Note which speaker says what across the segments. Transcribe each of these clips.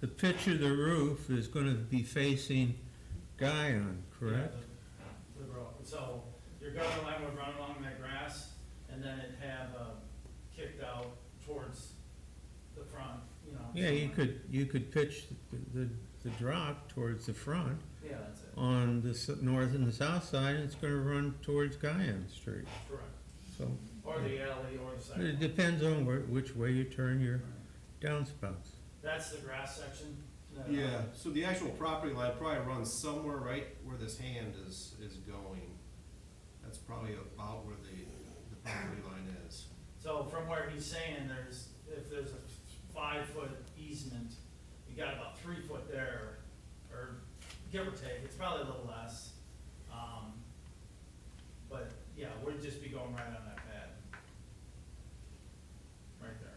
Speaker 1: the pitch of the roof is gonna be facing Guyon, correct?
Speaker 2: The road, so your gutter line would run along that grass, and then it'd have, uh, kicked out towards the front, you know.
Speaker 1: Yeah, you could, you could pitch the, the, the drop towards the front
Speaker 2: Yeah, that's it,
Speaker 1: on the s- north and the south side, and it's gonna run towards Guyon Street,
Speaker 2: correct,
Speaker 1: so.
Speaker 2: or the alley, or the
Speaker 1: It
Speaker 2: sidewalk.
Speaker 1: depends on where, which way you turn your downspouts.
Speaker 2: That's the grass section. that, uh,
Speaker 3: Yeah, so the actual property line probably runs somewhere right where this hand is, is going. That's probably about where the, the property line is.
Speaker 2: So from where he's saying, there's, if there's a five-foot easement, you got about three foot there, or give or take, it's probably a little less. Um, But, yeah, we'd just be going right on that pad. Right there.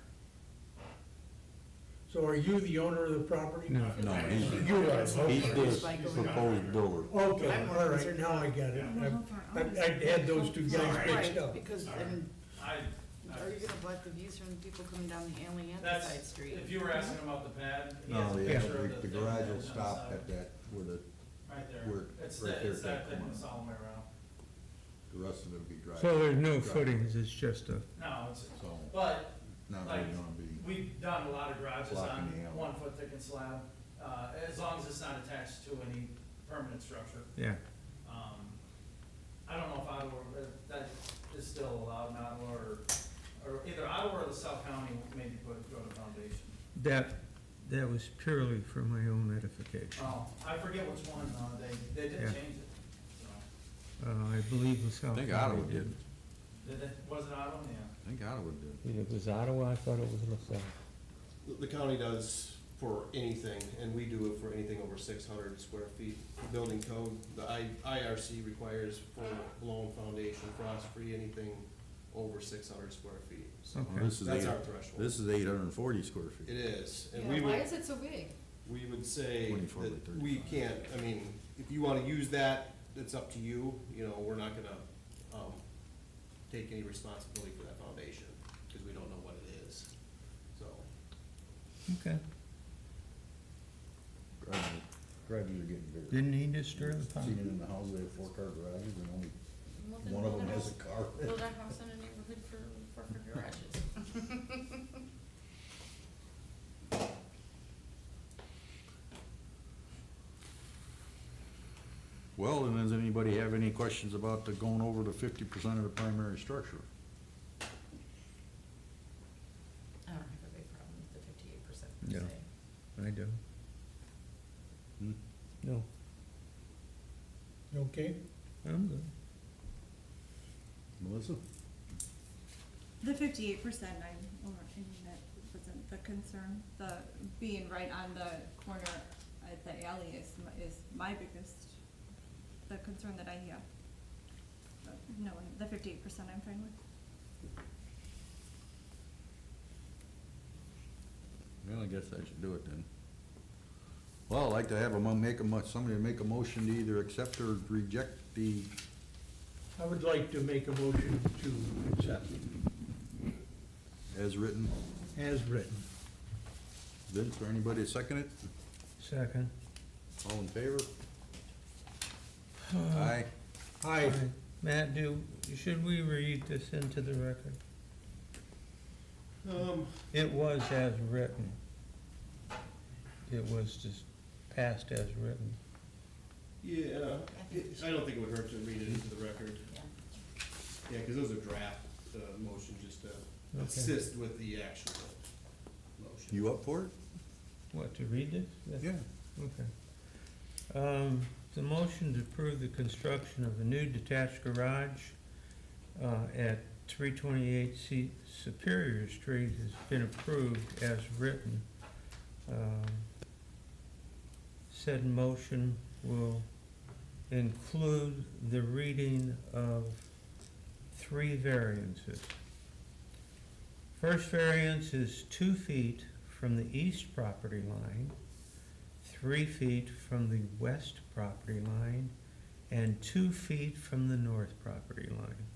Speaker 4: So are you the owner of the property?
Speaker 1: No.
Speaker 5: No, he's,
Speaker 4: You are,
Speaker 5: he's
Speaker 4: okay.
Speaker 5: this proposed builder.
Speaker 4: Okay, all right, now I got it. I, I had those two guys mixed
Speaker 6: Right,
Speaker 4: up.
Speaker 6: because, I mean,
Speaker 2: I,
Speaker 6: are you gonna block the views from people coming down the alley and the side
Speaker 2: that's,
Speaker 6: street?
Speaker 2: if you were asking about the pad, he has
Speaker 5: No,
Speaker 2: a
Speaker 5: yeah,
Speaker 2: picture
Speaker 5: the-
Speaker 2: of the.
Speaker 5: the
Speaker 2: thing
Speaker 5: garage will
Speaker 2: that's on the
Speaker 5: stop
Speaker 2: side.
Speaker 5: at that, where the,
Speaker 2: Right
Speaker 5: where-
Speaker 2: there. It's
Speaker 5: right
Speaker 2: that,
Speaker 5: there
Speaker 2: it's
Speaker 5: at
Speaker 2: that
Speaker 5: that
Speaker 2: thing,
Speaker 5: corner.
Speaker 2: it's all the way around.
Speaker 5: the rest of it be driveway.
Speaker 1: So there's no footings, it's just a,
Speaker 2: No, it's,
Speaker 5: So,
Speaker 2: but
Speaker 5: not
Speaker 2: Like,
Speaker 5: really gonna be,
Speaker 2: We've done a lot of garages on
Speaker 5: Blocking the alley.
Speaker 2: one foot thick and slab, uh, as long as it's not attached to any permanent structure.
Speaker 1: yeah.
Speaker 2: Um, I don't know if Ottawa, if that is still allowed in Ottawa or, or either Ottawa or the South County maybe put, go to foundation.
Speaker 1: That, that was purely for my own edification.
Speaker 2: Oh, I forget which one, uh, they, they did
Speaker 1: Yeah.
Speaker 2: change it, so,
Speaker 1: Uh, I believe the South.
Speaker 5: I think
Speaker 1: County
Speaker 5: Ottawa did,
Speaker 2: did it, was it Ottawa? Yeah.
Speaker 5: I think Ottawa did.
Speaker 1: It was Ottawa, I thought it was LaSalle.
Speaker 3: The- The county does for anything, and we do it for anything over six hundred square feet. The Building code, the I, IRC requires for blown foundation, frost-free, anything over six hundred square feet. So
Speaker 1: Okay.
Speaker 5: Well, This is
Speaker 3: that's
Speaker 5: eight,
Speaker 3: our threshold.
Speaker 5: this is eight hundred and forty square
Speaker 3: It
Speaker 5: feet.
Speaker 3: is, and we
Speaker 6: Yeah, why
Speaker 3: would,
Speaker 6: is it so big?
Speaker 3: we would say
Speaker 5: 24 by
Speaker 3: that we
Speaker 5: 35.
Speaker 3: can't, I mean, if you wanna use that, it's up to you, you know, we're not gonna, um, take any responsibility for that foundation, cause we don't know what it is, so.
Speaker 1: Okay.
Speaker 5: Garages garages are getting bigger.
Speaker 1: Didn't he disturb the
Speaker 5: Seen it
Speaker 1: pond?
Speaker 5: in the house, they have four car garages and only one of them has a car.
Speaker 6: Build a house in a neighborhood for, for, for garages.
Speaker 5: Well, and does anybody have any questions about the going over to fifty percent of the primary structure?
Speaker 6: I don't have a big problem with the fifty-eight percent
Speaker 1: Yeah.
Speaker 6: per se.
Speaker 1: I do.
Speaker 5: Hmm?
Speaker 1: No.
Speaker 4: Okay,
Speaker 1: I'm good.
Speaker 5: Melissa?
Speaker 7: The fifty-eight percent, I'm, or, I mean, that wasn't the concern, the being right on the corner at the alley is, my- is my biggest, the concern that I have. But No, the fifty-eight percent I'm fine with.
Speaker 5: Well, I guess I should do it then. Well, I'd like to have a, mo- make a, mo- somebody make a motion to either accept or reject the,
Speaker 4: I would like to make a motion to accept
Speaker 5: as written.
Speaker 4: as written.
Speaker 5: Vince, or anybody to second it?
Speaker 1: Second.
Speaker 5: All in favor? Aye.
Speaker 4: Aye.
Speaker 1: Matt, do, should we read this into the record?
Speaker 3: Um,
Speaker 1: It was as written. It was just passed as written.
Speaker 3: yeah,
Speaker 6: I think we
Speaker 3: It- I don't think it would hurt to read it into the record,
Speaker 6: should, yeah.
Speaker 3: yeah, cause those are draft, uh, motion, just to
Speaker 1: Okay.
Speaker 3: assist with the actual motion.
Speaker 5: You up for
Speaker 1: What, to read this?
Speaker 5: it?
Speaker 1: That's- Okay. Um, the motion to approve the construction of a new detached garage, uh, at three twenty-eight C Superior Street has been approved as written. Um, Said motion will include the reading of three variances. First variance is two feet from the east property line three feet from the west property line and two feet from the north property line.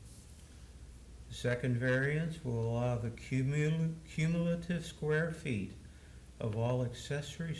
Speaker 1: The second variance will allow the cumul- cumulative square feet of all accessory